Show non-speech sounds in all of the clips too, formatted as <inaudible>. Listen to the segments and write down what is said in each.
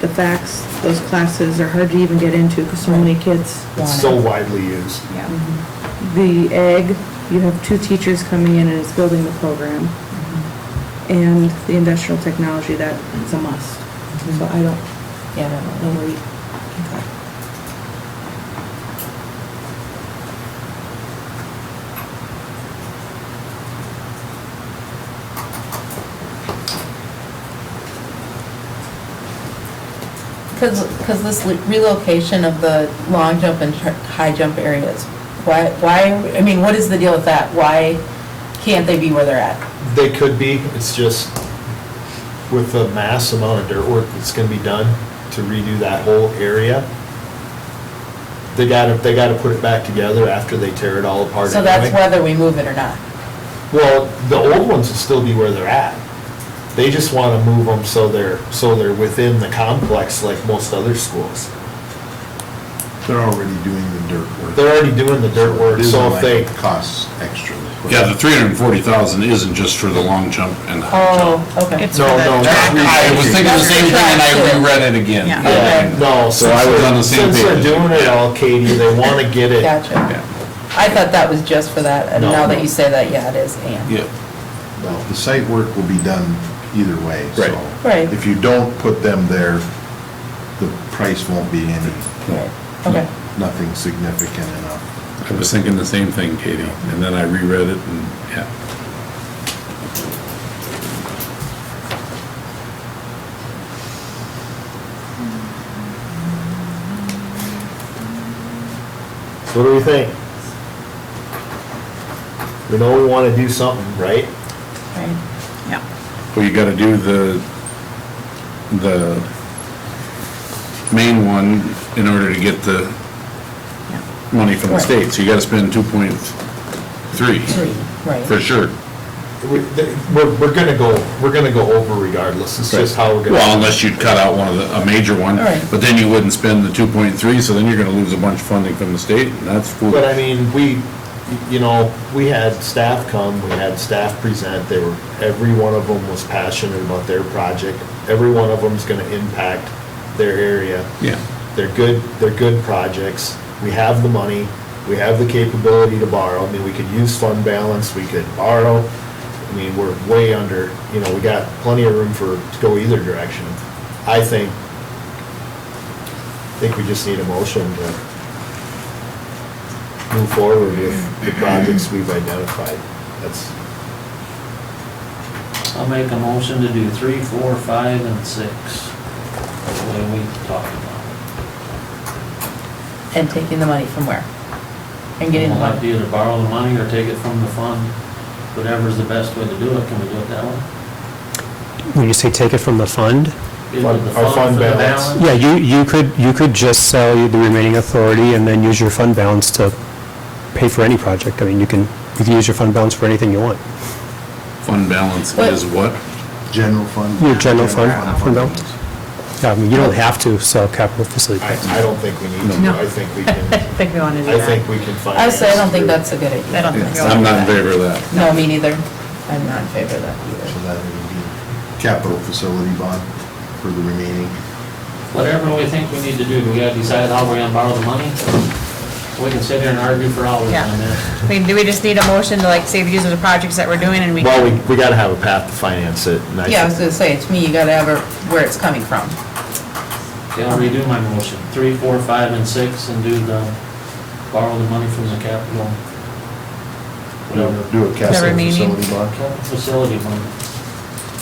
the facts, those classes are hard to even get into because so many kids want It's it. so widely used. Yeah. The egg, you have two teachers coming in and it's building the program. And the industrial technology, that is a must. So I don't Yeah, that know one. where you. Because, because this le- relocation of the long jump and tr- high jump areas, why, why, I mean, what is the deal with that? Why can't they be where they're at? They could be, it's just with the mass amount of dirt work that's gonna be done to redo that whole area. They gotta, they gotta put it back together after they tear it all apart So that's anyway. whether we move it or not. Well, the old ones will still be where they're at. They just wanna move them so they're, so they're within the complex like most other schools. They're already doing the dirt work. They're already doing the dirt work, It isn't so if like they, it Costs extra. Yeah, the three hundred and forty thousand isn't just for the long jump and high Oh, jump. okay. It's no, for that no, track. not re- I was thinking the same thing and I reread it again. Yeah. Yeah, no, So I was on the same since they're page. doing it all, Katie, they wanna get it Gotcha. I thought that was just for that, and No, now that no. you say that, yeah, it is, and. Yeah, Well, the site work will be done either way, so. Right. Right. If you don't put them there, the price won't be any, Okay, nothing significant enough. I was thinking the same thing, Katie, and then I reread it and, yeah. So what do we think? We know we wanna do something, right? right. Yeah, Well, you gotta do the, the main one in order to get the yeah. money from the Right. state, so you gotta spend two point three, Three, for right. sure. We- th- We're, we're gonna go, we're gonna go over regardless, it's just how we're gonna. Well, unless you'd cut out one of the, a major one, Right. but then you wouldn't spend the two point three, so then you're gonna lose a bunch of funding from the state, and that's foolish. But I mean, we, you know, we had staff come, we had staff present, they were, every one of them was passionate about their project. Every one of them's gonna impact their area. Yeah, They're good, they're good projects. We have the money, we have the capability to borrow. I mean, we could use fund balance, we could borrow. I mean, we're way under, you know, we got plenty of room for, to go either direction. I think, I think we just need a motion to move forward with the projects we've identified. That's, I'll make a motion to do three, four, five, and six. That's the way we talked about. And taking the money from where? And getting the We'll have to money, either borrow the money or take it from the fund, whatever's the best way to do it, can we do it that way? When you say take it from the fund, Either Fund- the our fund for the balance. yeah, you, you could, you could just sell the remaining authority and then use your fund balance to pay for any project. I mean, you can, you can use your fund balance for anything you want. fund balance But- Oh is what? General fund? Your general fund, fund balance. fundings. Yeah, I mean, you don't have to sell capital facility. I, I don't think we need to, I think we can, <laughs> I think we want to do I that. think we can finance. I say, I don't think through- that's a good idea. I don't think. we I'm want not in to do favor of that. No, me neither. I'm not in favor of that either. So that would be capital facility bond for the remaining. Whatever we think we need to do, we gotta decide how we're gonna borrow the money. We can sit here and argue for hours Yeah. on this. that. We- Do we just need a motion to like say these are the projects that we're doing and we? Well, we, we gotta have a path to finance it, and I Yeah, I was think- gonna say, to me, you gotta have a- where it's coming from. Okay, I'll redo my motion, three, four, five, and six, and do the, borrow the money from the capital. Whatever, Do a capital remaining. facility bond capital facility money.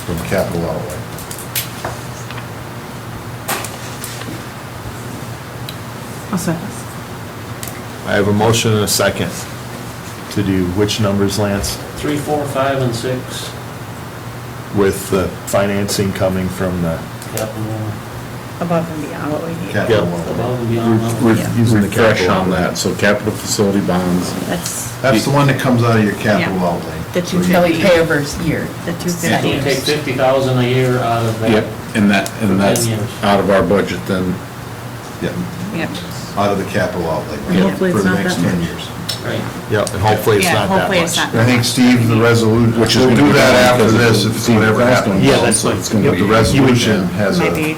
from capital outlay. I'll say this. I have a motion and a second to do which numbers, Lance? Three, four, five, and six, With the financing coming from the, capital, Above and beyond what we need. Capital Yeah. outlay. above and beyond. Re- level. re- Using the Refresh capital. on that, so capital facility bonds, That's That's the one that comes out of your capital Yeah. outlay. The two So you- Until we pay over his year. the two So you take fifty. fifty thousand a year out of that. yep, and that, and that's Ten years. out of our budget then. Yeah, Yep. out of the capital outlay. And hopefully For it's the not next that 10 much. years. Right, yeah, and hopefully it's Yeah, not that hopefully it's much. not- I think, Steve, the resolution, Which is we'll gonna do be that down after because this, of if the whatever cost happens. on Yeah, that's what it's gonna The be. resolution has a Maybe